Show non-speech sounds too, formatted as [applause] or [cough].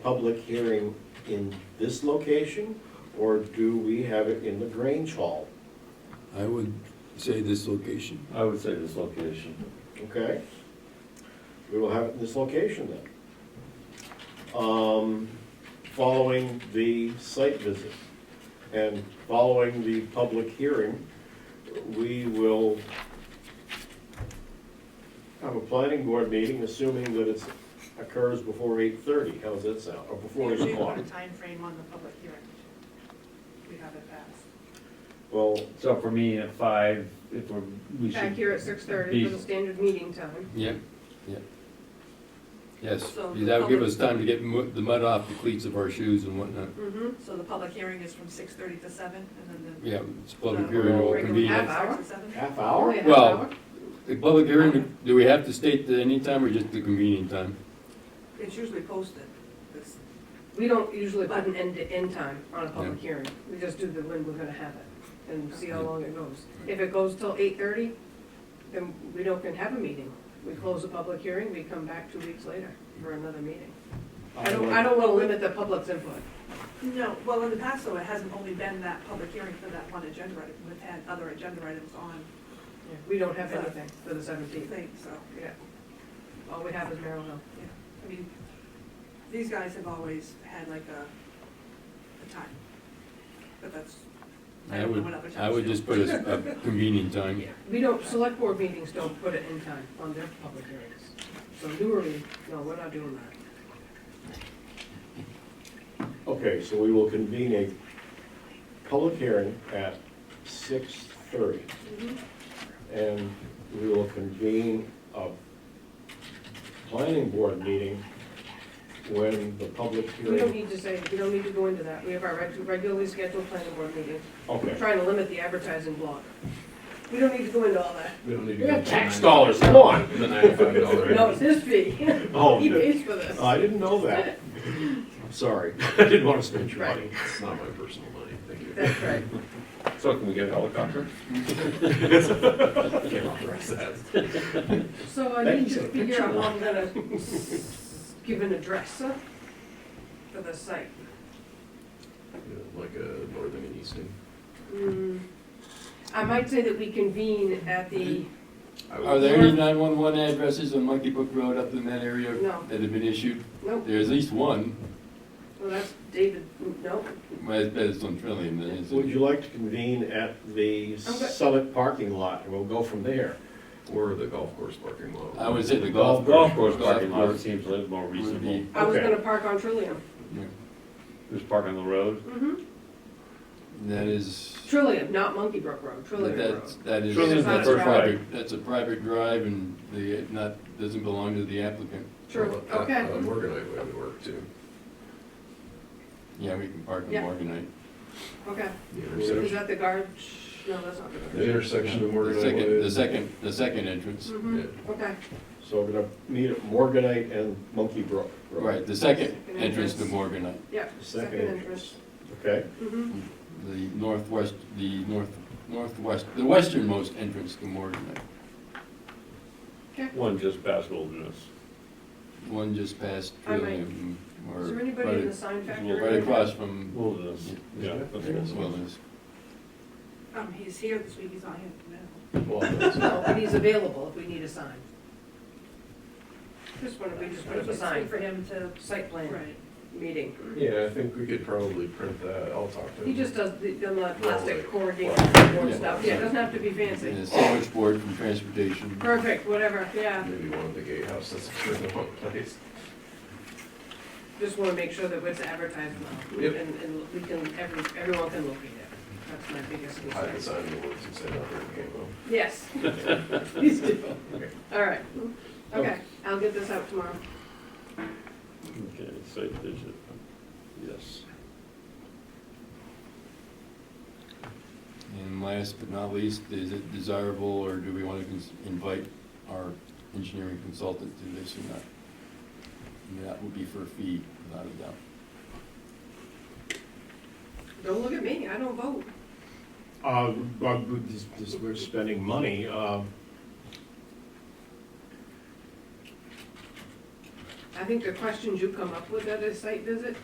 public hearing in this location, or do we have it in the Grange Hall? I would say this location. I would say this location. Okay? We will have it in this location then. Um, Following the site visit and following the public hearing, we will have a planning board meeting, assuming that it occurs before eight-thirty. How's that sound? Or before We eight usually o'clock? put a time frame on the public hearing. We have it passed. Well, So for me, at five, if we're, we should. Back here at six thirty for be- the standard meeting time. Yeah, yeah. Yes, So because that would give the us time to get mu- the mud off the cleats of our shoes and whatnot. Mm-hmm. So the public hearing is from six thirty to seven, and then the. Yeah, it's a public the hearing will or regular convenience. Half hour? starts at seven? half hour? Well, the public hearing, do we have to state the any time or just the convenient time? It's usually posted. It's- We don't usually put an end to end time on a Yeah. public hearing. We just do the when we're gonna have it and see how Yeah. long it goes. If it goes till eight thirty, then we don't can have a meeting. We close the public hearing, we come back two weeks later for another meeting. I don't, I don't wanna limit the public's input. No, well, in the past, though, it hasn't only been that public hearing for that one agenda item. We've had other agenda items on We don't have anything for the seventeenth. things, so, Yeah. All we have is Merrill Hill. yeah. I mean, these guys have always had like a, a time, but that's, I I don't know would, what other I times would do. just put a, s- a convenient time. We don't, select board meetings don't put an end time on their public hearings. So newly, no, we're not doing that. Okay, so we will convene a public hearing at six thirty. And we will convene a planning board meeting when the public We don't hearing. need to say, we don't need to go into that. We have our reg- regularly scheduled planning board meeting. We're Okay. trying to limit the advertising block. We don't need to go into all that. We don't need to. We go have to tax nine- dollars, come on. The ninety-five dollar. No, it's his [laughs] fee. Oh, He good. pays for this. I didn't know that. I'm sorry. [laughs] I didn't want to spend your money. It's not my personal money, thank you. That's right. So can we get a helicopter? Can't authorize that. So I need to figure out how I'm gonna s- give an address uh, for the site. Yeah, Like a northern and eastern. Hmm. I might say that we convene at the, I would- Are there any nine-one-one addresses on Monkey Brook Road up in that area No. that have been issued? no, There's at least one, well, that's David, no, but it's- but it's on Trillium, then, isn't Would it? you like to convene at the Summit parking lot, and we'll go from there? Or the golf course parking lot. I would say the Golf- golf. Golf course parking lot seems a little more would reasonable. be- I was Okay. gonna park on Trillium. yeah. Just park on the road. Mm-hmm. That is. Trillium, not Monkey Brook Road, But Trillium Road. that's, that is, Surely it's not that's a a drive. private, that's a private drive and the, it not, doesn't belong to the applicant. True, Well, uh, okay. uh, Morganite would work too. Yeah, we can park in Yeah. Morganite. Okay, The is intersection, that the guard? No, that's not the the guard. intersection of The Morganite second, the Way. second, the second entrance. hmm Yeah. okay. So we're gonna meet at Morganite and Monkey Brook. Road. Right, the second Second entrance to entrance. Morganite, Yep, Second second entrance. Okay, entrance. Mm-hmm, the northwest, the north, northwest, the westernmost entrance to Morganite. okay. One just past Wilderness. One just past I might- Trillium, or Is there right- anybody in the sign factory? Right across from, Wilderness, yeah. that's as what well it was. as, Um, he's here this week, he's not here tomorrow. Well, that's- No, but he's available if we need a sign. Just wanna, we just put up a It's sign good for for him to, site plan right. meeting. Yeah, I think we could probably print that, I'll talk to him. He just does the, the plastic corrugated board stuff, yeah, it doesn't have to be and fancy. the sandwich board from transportation. Perfect, whatever, yeah. Maybe one of the gatehouses, sure, the wrong place. Just wanna make sure that it's advertised well, Yep. and, and we can, every, everyone can locate it. That's my biggest Hide the concern. sign in the woods and say not during game though. [laughs] Yes. Please do. All right, Oh. okay, I'll get this out tomorrow. Okay, site visit, yes. And last but not least, is it desirable, or do we want to cons- invite our engineering consultant to this or not? And that would be for a fee, without a doubt. Don't look at me, I don't vote. uh, well, we- this- this- we're spending money, um, I I think the questions you come up with at a site visit